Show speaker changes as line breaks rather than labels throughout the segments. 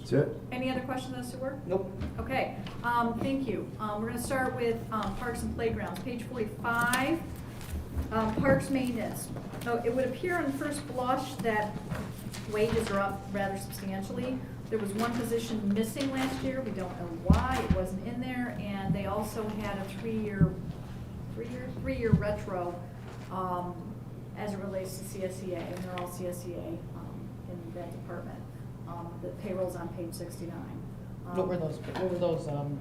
That's it?
Any other questions on sewer?
Nope.
Okay, um, thank you. Um, we're gonna start with, um, parks and playgrounds, page forty-five. Um, parks maintenance. Oh, it would appear on first blush that wages are up rather substantially. There was one position missing last year, we don't know why, it wasn't in there, and they also had a three-year, three-year, three-year retro, um, as it relates to CSEA, and they're all CSEA, um, in that department. Um, the payroll's on page sixty-nine. Um,
What were those, what were those, um,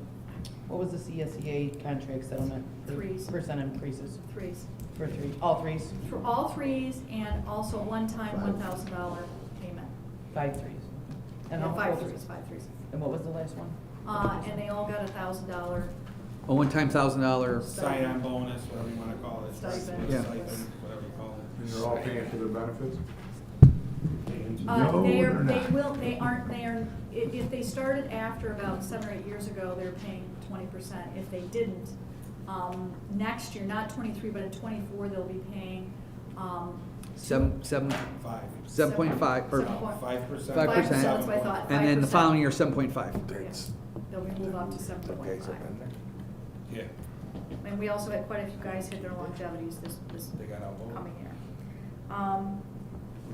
what was the CSEA contract settlement?
Threes.
Percent increases
Threes,
for three, all threes,
for all threes, and also one-time
Five.
one thousand dollar payment.
five threes. And
Yeah,
how-
Five
what was-
threes, five threes.
And what was the last one?
Uh, and they all got a thousand dollar,
A one-time thousand dollar,
sign-on bonus, whatever you wanna call it.
Stipend.
Yeah.
Stipend, whatever you call it.
And they're all paying for their benefits?
uh,
No,
they
they're
are, they
not.
will, they aren't, they are, if, if they started after about seven or eight years ago, they're paying twenty percent. If they didn't, um, next year, not twenty-three, but in twenty-four, they'll be paying, um.
seven, seven,
Five.
seven point five, or,
Seven point-
Five percent.
Five
Five percent,
percent.
that's what I thought.
and then the
5%.
following year, seven point five.
Yes, They'll be moved up to seven point five.
Yeah,
And we also had quite a few guys hit their longevities this, this
they got outvoted.
coming year. Um,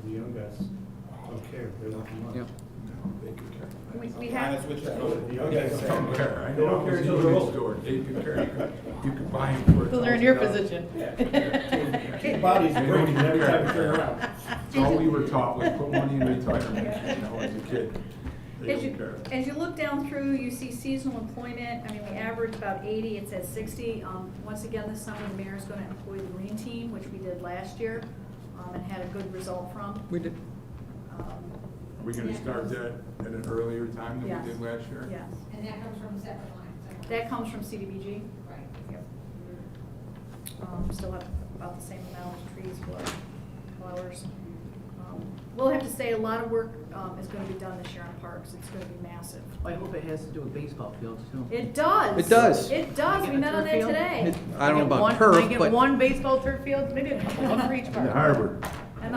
The young guys don't care, they want the money.
Yeah.
we, we
Honest
have,
with you. I
Oh,
don't-
the
I
young
don't
guys
care.
don't care.
I know I'm
till they're old.
store, they could care, you could- you could buy them for.
They'll earn your
$1,000.
position.
Their Bodies are great, you never have to care around.
It's all we were taught, was put money in retirement, you know, as a kid. They
as
don't
you,
care.
as you look down through, you see seasonal employment, I mean, we average about eighty, it says sixty. Um, once again, this summer, the mayor's gonna employ the green team, which we did last year, um, and had a good result from.
We did,
Um,
Are we gonna start that at an earlier time than
Yes.
we did last year?
Yes,
And that comes from separate lines. I believe.
that comes from CDBG.
Right.
Um, still have about the same amount of trees, flo- flowers. Um, We'll have to say, a lot of work, um, is gonna be done this year on parks, it's gonna be massive.
I hope it has to do with baseball fields too.
It does.
It does.
It does, we
Get a
met on
turf
that
field?
today.
It- I don't know
Get
about
one-
turf,
I get
but-
one baseball turf field, maybe a couple, one for each park.
And the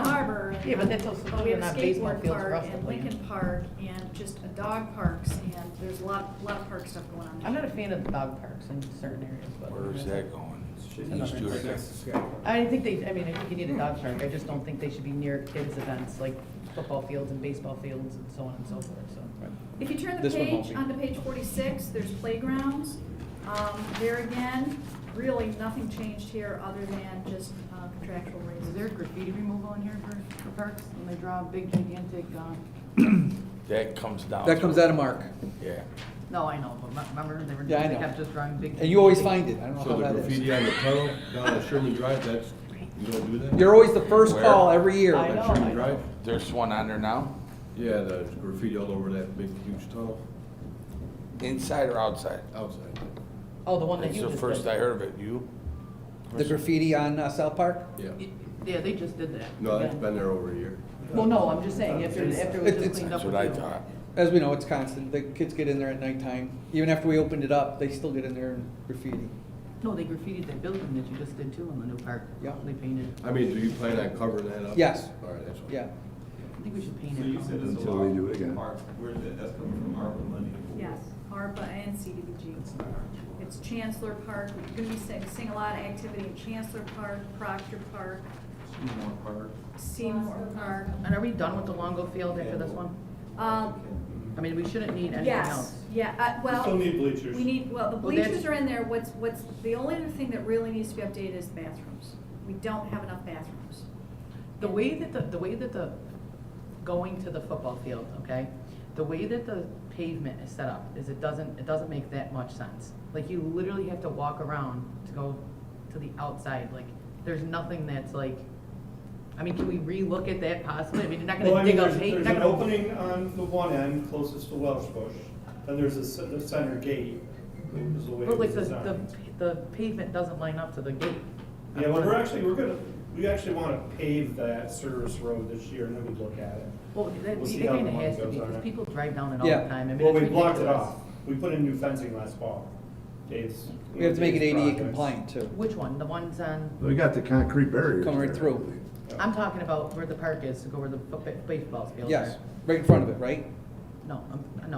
harbor. and-
Yeah, but that's also
But we have a
not baseball
skateboard
fields for
park
us to
and
play in.
Lincoln Park and just a dog parks and there's a lot, lot of park stuff going on.
I'm not a fan of the dog parks in certain areas, but.
Where's that going?
Another
East Georgia.
Next to Scott.
I think they, I mean, I think you need a dog park, I just don't think they should be near kids' events, like football fields and baseball fields and so on and so forth, so.
If you turn the
This one won't
page,
be.
onto page forty-six, there's playgrounds. Um, there again, really nothing changed here other than just uh, contractual raises.
Is there graffiti removal in here for, for parks? And they draw a big gigantic, um,
That comes down.
that comes out of Mark,
Yeah.
no, I know, but m- remember, they were,
Yeah, I
they
know.
kept just drawing big.
and you always find it, I don't know
So
how
the
that
graffiti
is.
on the tunnel down at Sherman Drive, that's, you don't do that?
You're always the first
Where?
call every year.
I know, I
Sherman
know.
Drive?
There's one on there now,
Yeah, the graffiti all over that big huge tunnel
inside or outside?
outside.
Oh, the one that
It's
you
the
just
first I
did.
heard of it, you?
The graffiti on uh, South Park,
Yeah.
Yeah, they just did that.
No, that's
Yeah.
been there over a year.
Well, no, I'm just saying, after, after it was
It-
just
it's-
cleaned up.
That's what I
with you.
thought.
as we know, it's constant, the kids get in there at nighttime, even after we opened it up, they still get in there and graffiti.
No, they graffitied that building that you just did too in the new park.
Yeah.
They painted,
I mean, do you plan on covering that up?
Yes.
All right, that's. what-
Yeah,
I think we should paint
So you said
it.
it's a
Until we
law.
do it again.
Park, where did that, that's coming from ARPA money?
Yes, ARPA and CDBG. It's Chancellor Park, we're gonna be seeing, seeing a lot of activity in Chancellor Park, Proctor Park,
Seymour Park.
Seymour Park.
And are we done with the Longo Field after this one?
Uh,
I mean, we shouldn't need anything
yes,
else.
yeah, uh, well.
Still need bleachers.
We need, well, the
Well, that's-
bleachers are in there, what's, what's, the only other thing that really needs to be updated is bathrooms. We don't have enough bathrooms.
The way that the, the way that the, going to the football field, okay? The way that the pavement is set up is it doesn't, it doesn't make that much sense. Like, you literally have to walk around to go to the outside, like, there's nothing that's like, I mean, can we relook at that possibly? I mean, you're not
Well, I
gonna
mean,
dig up
there's,
pavement.
there's an opening on the one end closest to Welsh Bush, then there's a ce- the center gate, is the way
But
it was
like, the, the,
designed.
the pavement doesn't line up to the gate.
Yeah, well, we're actually, we're gonna, we actually wanna pave that service road this year, and then we look at it.
Well, that,
We'll
it
see how the
kinda
money
has to
goes
be,
on
because
it.
people drive down it all
Yeah.
the time, I mean,
Well,
it's
we blocked it
ridiculous.
off, we put in new fencing last fall, Dave's.
we have to make it
Dave's
ADA
projects.
compliant too,
Which one? The ones on,
We got the concrete barriers.
Come right
there, I
through.
believe.
I'm talking about where the park is, to go where the fo- baseball field is.
yes, right in front of it, right?
no, I'm- no,